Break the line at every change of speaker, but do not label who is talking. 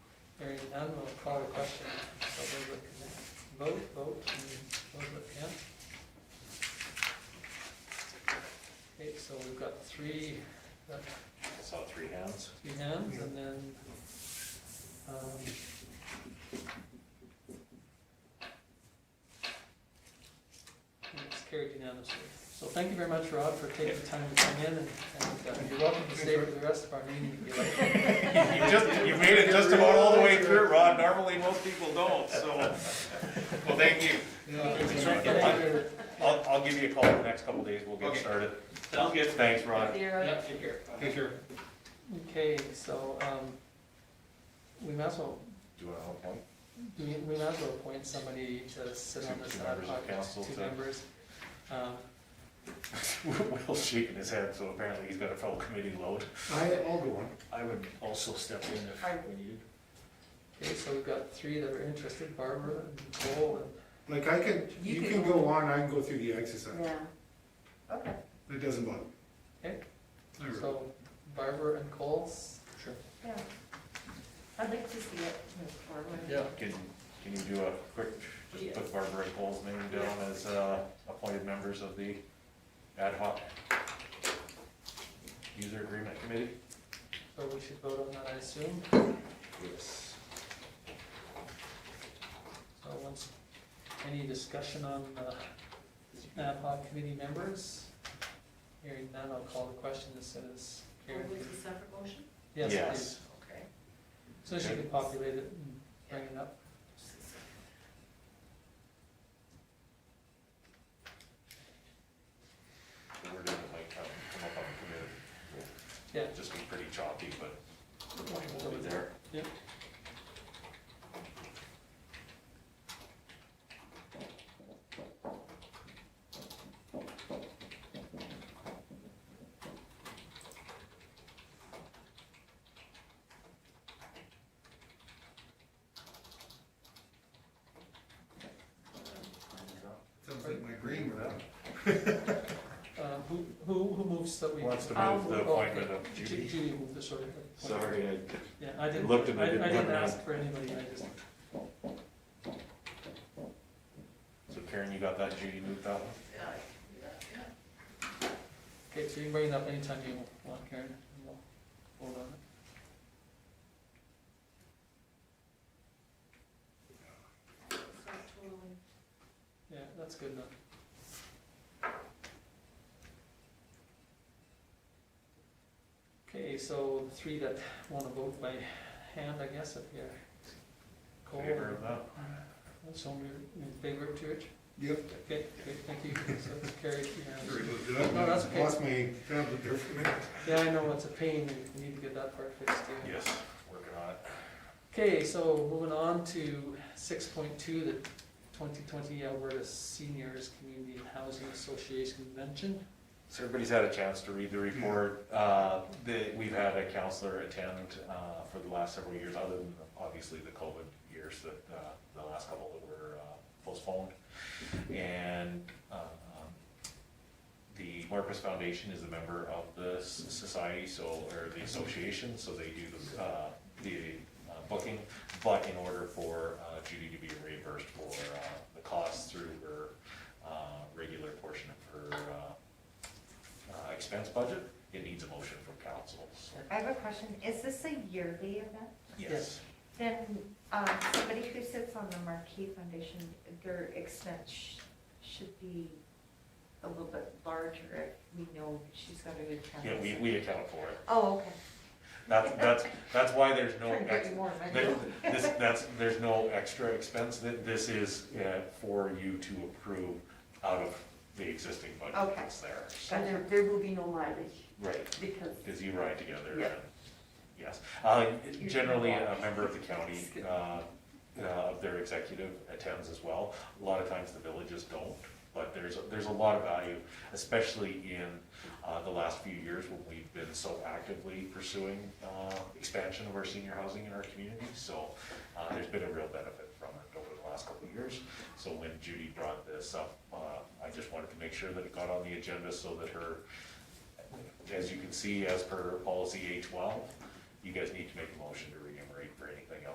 none, we'll call the question. So we'll look at that. Vote, vote, and we'll look, yeah? Okay, so we've got three, uh,
I saw three hands.
three hands, and then, um, and it's carried unanimously. So thank you very much, Rob, for taking the time to come in, and, and uh, you're welcome to stay for the rest of our meeting if you like.
You just, you made it just about all the way through, Rod. Normally, most people don't, so. Well, thank you.
Thank you.
I'll, I'll give you a call in the next couple days. We'll get
Okay.
started. Sounds good. Thanks, Rod.
Zero.
Yep, take care.
Take care.
Okay, so, um, we might as well,
Do you want to help one?
we we might as well appoint somebody to sit on
Two-
this
two
ad
members of
hoc,
council
two
to-
members. Um,
Will's shaking his head, so apparently he's got a full committee load.
I, I'll go on.
I would also step in if
I-
we needed.
Okay, so we've got three that are interested, Barbara and Cole
Like I can,
You
you
can
can go on, I can go through the exercise.
Yeah. Okay.
It doesn't bother me.
Okay.
I
and,
really-
so Barbara and Cole's. Sure.
Yeah. I'd like to see it move forward.
Yeah.
Can, can you do a quick, just
Yeah.
put Barbara and Cole's name down as, uh, appointed members of the ad hoc user agreement committee?
So we should vote on that, I assume,
Yes.
so once, any discussion on the ad hoc committee members? Hearing none, I'll call the question as soon as Karen
Would
can.
it be separate motion?
Yes, please.
Yes.
Okay.
So she can populate it and bring it up.
The wording might come, come up on the committee. We'll
Yeah.
Just be pretty choppy, but the point will be there.
Sounds like my green room.
Um, Who, who, who moves that we?
Wants to
Um,
move the
Oh, okay.
appointment of
Ju-
Judy.
Judy moved the sort of.
Sorry, I
Yeah, I didn't,
looked and I
I I
didn't
didn't
recognize.
ask for anybody, I just,
So Karen, you got that, Judy moved that one?
okay, so you can bring it up anytime you want, Karen, and we'll hold on. it. Yeah, that's good enough. Okay, so the three that want to vote by hand, I guess, if you're. Cole,
Favor of that?
So we in favor of George?
Yep.
Okay, okay, thank you, so it's carried unanimously.
Sorry about that.
No, that's okay.
Lost my tablet there for a minute.
Yeah, I know, it's a pain, we need to get that part fixed too.
Yes, working on it.
Okay, so moving on to six point two, the twenty twenty Alberta Seniors Community and Housing Association Convention.
So everybody's had a chance to read the report. Uh, the- We've had a counselor attend uh, for the last several years, other than obviously the COVID years that, uh, the last couple that were uh, postponed. And um, the Marcus Foundation is a member of the s- society, so, or the association, so they do the, uh, the uh, booking. But in order for uh, Judy to be reimbursed for uh, the costs through her uh, regular portion of her uh, uh, expense budget, it needs a motion from council. so-
I have a question. Is this a yearly event?
Yes,
Then, um, somebody who sits on the Marquee Foundation, their expense sh- should be a little bit larger if we know she's got a good time.
yeah, we, we account for it.
Oh, okay.
That's, that's, that's why there's no,
Trying to
ex-
get you more money.
there- this, that's, there's no extra expense, that this is uh, for you to approve out of the existing budget
Okay.
that's there. so-
And there, there will be no mileage
Right,
because
because you ride together.
Yeah.
and- Yes, Uh, generally, a member of the county, uh, uh, of their executive attends as well. A lot of times the villages don't, but there's, there's a lot of value, especially in uh, the last few years when we've been so actively pursuing uh, expansion of our senior housing in our community. So uh, there's been a real benefit from it over the last couple of years. So when Judy brought this up, uh, I just wanted to make sure that it got on the agenda so that her as you can see, as per policy A twelve, you guys need to make a motion to